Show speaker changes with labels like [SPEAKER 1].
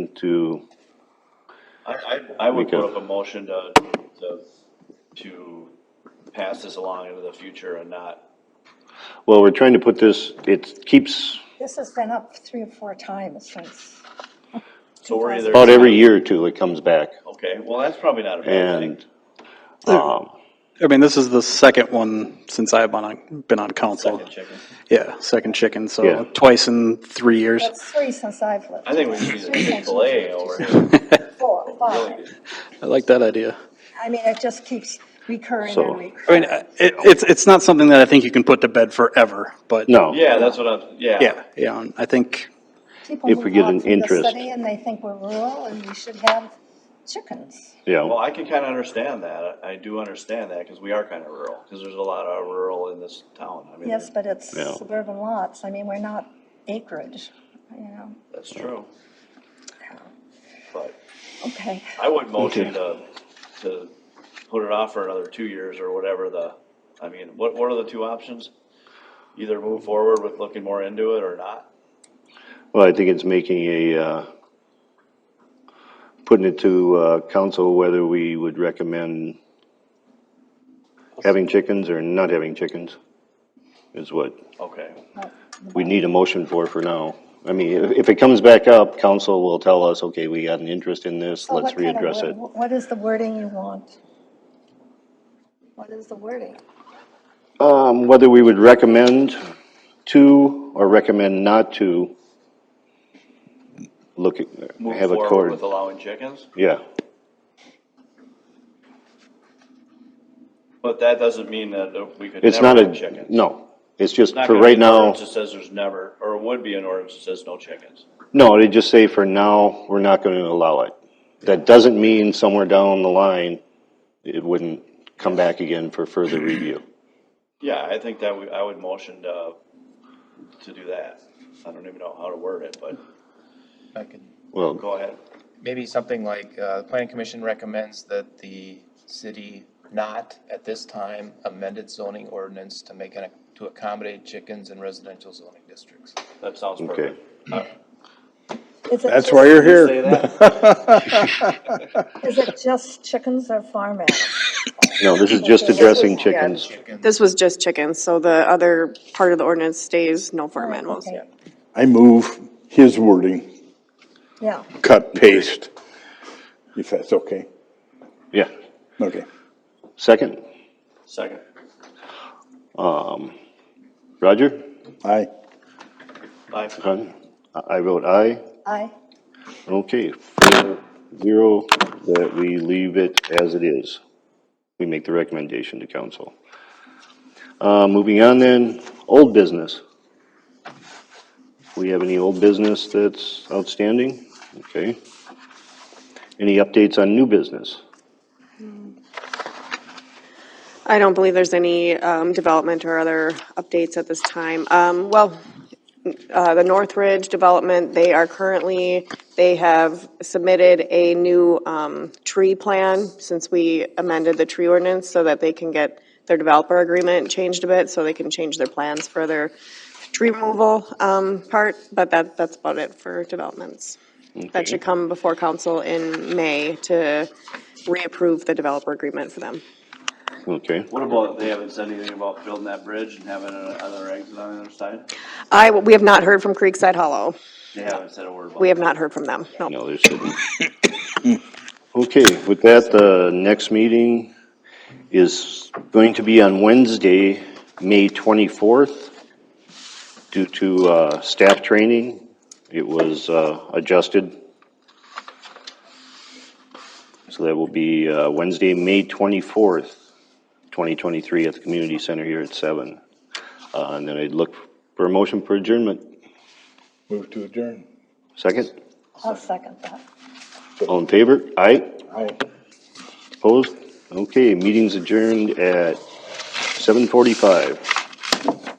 [SPEAKER 1] motion to,
[SPEAKER 2] I, I, I would
[SPEAKER 1] Make a-
[SPEAKER 2] put up a motion to, to, to pass this along into the future and not,
[SPEAKER 1] well, we're trying to put this, it keeps
[SPEAKER 3] This has been up three or four times since.
[SPEAKER 2] so we're either.
[SPEAKER 1] about every year or two, it comes back.
[SPEAKER 2] Okay, well, that's probably not a bad thing.
[SPEAKER 1] And, um,
[SPEAKER 4] I mean, this is the second one since I've been on, been on council.
[SPEAKER 2] Second chicken.
[SPEAKER 4] Yeah, second chicken,
[SPEAKER 1] Yeah.
[SPEAKER 4] so twice in three years.
[SPEAKER 3] That's three since I've lived.
[SPEAKER 2] I think we should use a Chick-fil-A over here.
[SPEAKER 3] Four, five.
[SPEAKER 4] I like that idea.
[SPEAKER 3] I mean, it just keeps recurring
[SPEAKER 1] So-
[SPEAKER 3] and recurring.
[SPEAKER 4] I mean, I- it, it's, it's not something that I think you can put to bed forever, but.
[SPEAKER 1] no.
[SPEAKER 2] Yeah, that's what I'm, yeah.
[SPEAKER 4] Yeah, yeah, and I think,
[SPEAKER 3] People
[SPEAKER 1] If we
[SPEAKER 3] move
[SPEAKER 1] get
[SPEAKER 3] out
[SPEAKER 1] an
[SPEAKER 3] from the
[SPEAKER 1] interest.
[SPEAKER 3] city and they think we're rural and we should have chickens.
[SPEAKER 2] Well,
[SPEAKER 1] Yeah,
[SPEAKER 2] I can kind of understand that. I do understand that because we are kind of rural, because there's a lot of rural in this town. I mean,
[SPEAKER 3] Yes, but it's
[SPEAKER 1] Yeah.
[SPEAKER 3] suburban lots. I mean, we're not acreage, you know.
[SPEAKER 2] That's true. But
[SPEAKER 3] Okay,
[SPEAKER 2] I would motion to, to put it off for another two years or whatever the, I mean, what, what are the two options? Either move forward with looking more into it or not.
[SPEAKER 1] well, I think it's making a, uh, putting it to, uh, council whether we would recommend having chickens or not having chickens is what
[SPEAKER 2] Okay,
[SPEAKER 3] but
[SPEAKER 1] we need a motion for for now. I mean, if, if it comes back up, council will tell us, okay, we got an interest in this,
[SPEAKER 3] So
[SPEAKER 1] let's
[SPEAKER 3] what kind of
[SPEAKER 1] readdress
[SPEAKER 3] word-
[SPEAKER 1] it.
[SPEAKER 3] What is the wording you want? What is the wording?
[SPEAKER 1] Um, whether we would recommend to or recommend not to look at,
[SPEAKER 2] move
[SPEAKER 1] have a
[SPEAKER 2] forward
[SPEAKER 1] court.
[SPEAKER 2] with allowing chickens,
[SPEAKER 1] Yeah,
[SPEAKER 2] but that doesn't mean that uh, we could
[SPEAKER 1] it's
[SPEAKER 2] never
[SPEAKER 1] not
[SPEAKER 2] have
[SPEAKER 1] a,
[SPEAKER 2] chickens.
[SPEAKER 1] no, it's just
[SPEAKER 2] Not
[SPEAKER 1] for
[SPEAKER 2] gonna be
[SPEAKER 1] right
[SPEAKER 2] an
[SPEAKER 1] now,
[SPEAKER 2] ordinance That says there's never, or would be an ordinance that says no chickens.
[SPEAKER 1] no, they just say for now, we're not gonna allow it. That doesn't mean somewhere down the line, it wouldn't come back again for further review.
[SPEAKER 2] Yeah, I think that we, I would motion to, to do that. I don't even know how to word it, but
[SPEAKER 5] I could,
[SPEAKER 1] Well,
[SPEAKER 2] go ahead.
[SPEAKER 5] maybe something like, uh, the planning commission recommends that the city not at this time amend its zoning ordinance to make, an- to accommodate chickens in residential zoning districts.
[SPEAKER 2] That sounds
[SPEAKER 1] okay.
[SPEAKER 2] perfect.
[SPEAKER 3] Is it
[SPEAKER 6] That's
[SPEAKER 3] just-
[SPEAKER 6] why you're here.
[SPEAKER 2] Say that.
[SPEAKER 3] Is it just chickens or farm animals?
[SPEAKER 1] No, this is just
[SPEAKER 3] This is-
[SPEAKER 1] addressing
[SPEAKER 3] yeah.
[SPEAKER 1] chickens.
[SPEAKER 5] Chicken-
[SPEAKER 7] This was just chickens, so the other part of the ordinance stays no farm animals.
[SPEAKER 3] Oh, Okay,
[SPEAKER 6] I move his wording,
[SPEAKER 3] Yeah,
[SPEAKER 6] cut, paste, if that's okay.
[SPEAKER 1] Yeah,
[SPEAKER 6] Okay.
[SPEAKER 1] second,
[SPEAKER 2] Second.
[SPEAKER 1] Roger?
[SPEAKER 6] Aye.
[SPEAKER 2] Aye.
[SPEAKER 1] Aye. I vote aye.
[SPEAKER 3] I,
[SPEAKER 1] Okay, four, zero, that we leave it as it is. We make the recommendation to council. Uh, moving on then, old business. We have any old business that's outstanding? Okay. Any updates on new business?
[SPEAKER 7] I don't believe there's any um, development or other updates at this time. Um, Well, uh, the Northridge Development, they are currently, they have submitted a new um, tree plan since we amended the tree ordinance so that they can get their developer agreement changed a bit, so they can change their plans for their tree removal um, part, but that, that's about it for developments. That should come before council in May to reapprove the developer agreement for them.
[SPEAKER 1] Okay,
[SPEAKER 2] What about, they haven't said anything about building that bridge and having another exit on the other side?
[SPEAKER 7] I, we have not heard from Creekside Hollow.
[SPEAKER 2] They haven't said a word about
[SPEAKER 7] We
[SPEAKER 2] it.
[SPEAKER 7] have not heard from them, no.
[SPEAKER 1] no, there's shouldn't. Okay, with that, the next meeting is going to be on Wednesday, May 24th. Due to uh, staff training, it was uh, adjusted. So that will be uh, Wednesday, May 24th, 2023, at the community center here at seven. Uh And then I'd look for a motion for adjournment.
[SPEAKER 6] Move to adjourn.
[SPEAKER 1] Second?
[SPEAKER 3] I'll second that.
[SPEAKER 1] All in favor? Aye?
[SPEAKER 6] Aye.
[SPEAKER 1] Opposed? Okay, meeting's adjourned at 7:45.